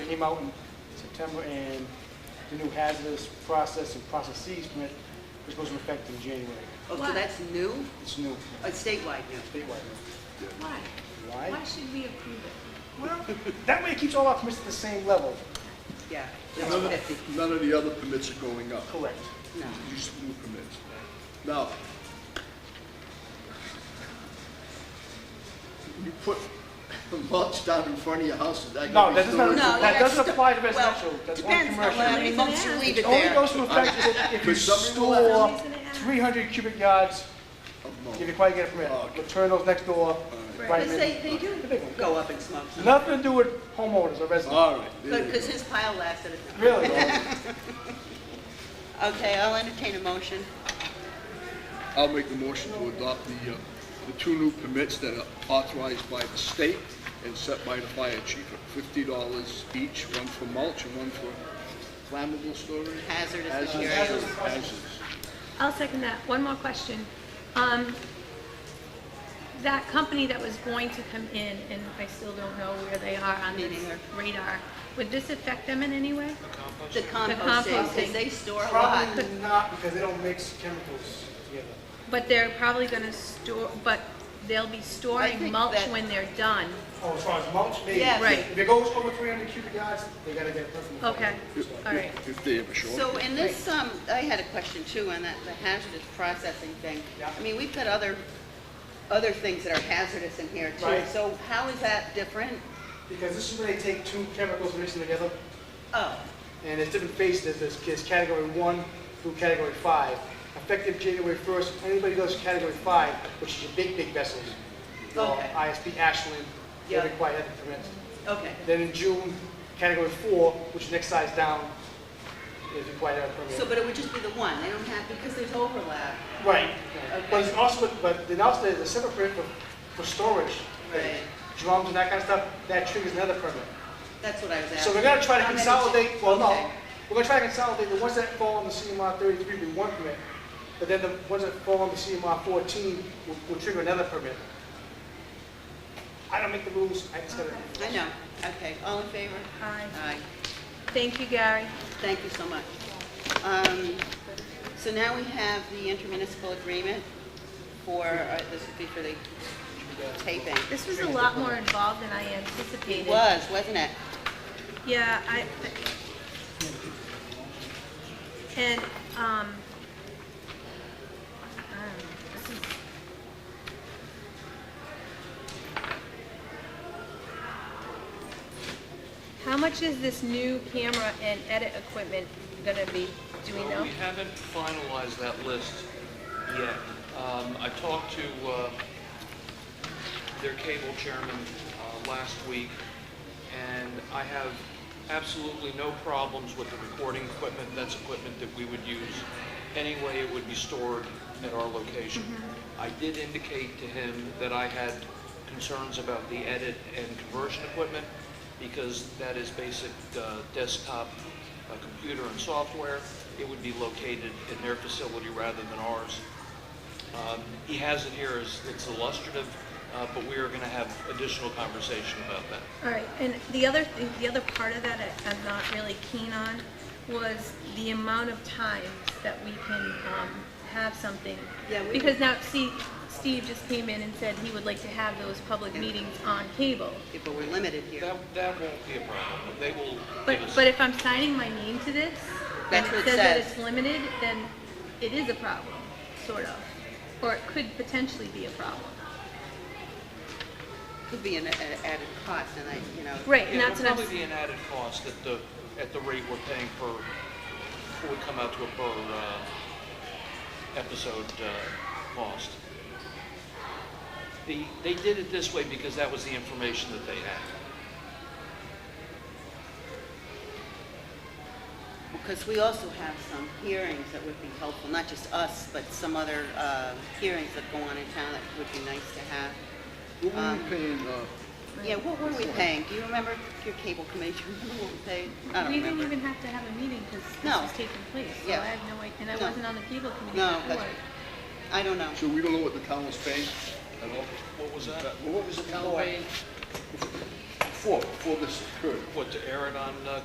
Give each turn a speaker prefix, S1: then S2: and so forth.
S1: came out in September, and the new hazardous process and processes permit was supposed to affect in January.
S2: Oh, so
S3: Why?
S2: that's new?
S1: It's new,
S2: Uh, statewide new?
S1: statewide.
S3: Why?
S1: Why?
S3: Why should we approve it?
S1: Well, that way it keeps all our permits at the same level.
S2: Yeah.
S1: It's
S2: That's
S1: not-
S2: fifty.
S4: None of the other permits are going up.
S1: Correct.
S2: No.
S4: These new permits. Now, you put a mulch down in front of your house, is that
S1: No,
S4: gonna
S1: that
S4: be
S1: does
S4: still?
S1: not, that
S2: No, that's
S1: doesn't
S2: the-
S1: apply to
S2: well,
S1: residential, that's only
S2: Depends on
S1: commercial.
S2: how many months you leave it
S1: It only
S2: there.
S1: goes to effect if- if you
S4: But somebody's gonna
S1: store
S3: have- Somebody's gonna have-
S1: 300 cubic yards,
S4: Of
S1: you
S4: mulch.
S1: can probably get a permit.
S4: Oh, okay.
S1: Maternals next door, right
S3: Right.
S2: But
S1: in.
S2: they, they do
S1: The big one.
S2: go up in smoke.
S1: Nothing to do with homeowners or residents,
S4: All right. there you
S2: Because
S4: go.
S2: his pile lasted.
S1: really.
S2: Okay, I'll entertain a motion.
S4: I'll make the motion to adopt the, uh, the two new permits that are authorized by the state and set by the fire chief at fifty dollars each, one for mulch and one for flammable storage.
S2: Hazardous
S4: Hazardous-
S2: materials.
S4: hazardous.
S3: I'll second that. One more question. Um, that company that was going to come in, and I still don't know where they are on
S2: Me
S3: this
S2: neither.
S3: radar, would this affect them in any way?
S2: The composting, because
S3: composting.
S2: they store a lot.
S1: Probably not, because they don't mix chemicals together.
S3: But they're probably gonna store, but they'll be storing
S2: think
S3: mulch
S2: that-
S3: when they're done.
S1: Oh, as far as mulch, maybe.
S2: Yeah.
S3: Right.
S1: If it goes over 300 cubic yards, they gotta get a permit.
S3: Okay,
S4: If-
S3: all right.
S4: if- If they ever show
S2: So
S4: up.
S2: in this, um, I had a question too on that, the hazardous processing thing.
S1: Yeah.
S2: I mean, we've got other, other things that are hazardous in here too.
S1: Right.
S2: So how is that different?
S1: Because this is where they take two chemicals, mix them together,
S2: Oh,
S1: and there's different phases, there's, there's category one through category five. Effective January first, anybody who goes to category five, which is your big, big vessels, your
S2: Okay.
S1: ISP Ashland, they're
S2: Yeah.
S1: required to have the permits.
S2: okay.
S1: Then in June, category four, which is next size down, is required to have a permit.
S2: So, but it would just be the one, they don't have, because there's overlap.
S1: Right,
S2: Okay.
S1: but it's also, but then also there's a separate permit for, for storage,
S2: Right.
S1: drums and that kind of stuff, that triggers another permit.
S2: That's what I was asking.
S1: So we're gonna try to
S2: How many-
S1: consolidate, well, no,
S2: Okay.
S1: we're gonna try to consolidate the ones that fall on the CMR thirty-three will be one permit, but then the ones that fall on the CMR fourteen will, will trigger another permit. I don't make the rules, I just gotta.
S2: I know, okay, all in favor?
S3: Aye.
S2: Aye,
S3: Thank you, Gary.
S2: thank you so much. Um, So now we have the intermunicipal agreement for, uh, this would be for the taping.
S3: This was a lot more involved than I
S2: It
S3: anticipated.
S2: was, wasn't it?
S3: Yeah, I, and, um, I don't know, this is. How much is this new camera and edit equipment gonna be, do we
S5: Well,
S3: know?
S5: Uh, We haven't finalized that list yet. Um, I talked to uh, their cable chairman uh, last week, and I have absolutely no problems with the recording equipment. That's equipment that we would use anyway. It would be stored at our location. I did indicate to him that I had concerns about the edit and conversion equipment, because that is basic uh, desktop uh, computer and software. It would be located in their facility rather than ours. Um, He has it here as, it's illustrative, uh, but we are going to have additional conversation about that.
S3: All right, and the other, thing- the other part of that I- I'm not really keen on was the amount of times that we can um, have something.
S2: Yeah, we-
S3: Because now, see, Steve just came in and said he would like to have those public meetings on cable.
S2: Yeah, But we're limited here.
S5: That, that won't be a problem. They will
S3: But,
S5: give us...
S3: but if I'm signing my name to this, and
S2: That's what
S3: it
S2: it
S3: says that
S2: says.
S3: it's limited, then it is a problem, sort of. Or it could potentially be a problem.
S2: Could be an a- a- added cost, and I, you know.
S3: Right, and
S5: Yeah,
S3: that's
S5: It'll
S3: what I'm,
S5: probably be an added cost at the, at the rate we're paying per, what would come out to a per uh, episode uh, cost. The, they did it this way because that was the information that they had.
S2: Because we also have some hearings that would be helpful, not just us, but some other uh, hearings that go on in town that would be nice to have.
S4: What were
S2: Um,
S4: we paying, uh,
S2: Yeah, what were we paying? Do you remember your cable committee? Do you remember what we paid? I don't
S3: we didn't
S2: remember.
S3: even have to have a meeting because this
S2: No.
S3: was taking place. So I
S2: Yeah.
S3: have no idea, and I
S2: No.
S3: wasn't on the cable committee
S2: No,
S3: before.
S2: that's- I don't know.
S4: so we don't know what the town was paying at all?
S5: What was that?
S4: What was the town paying? before, before this occurred.
S5: What, to air it on uh,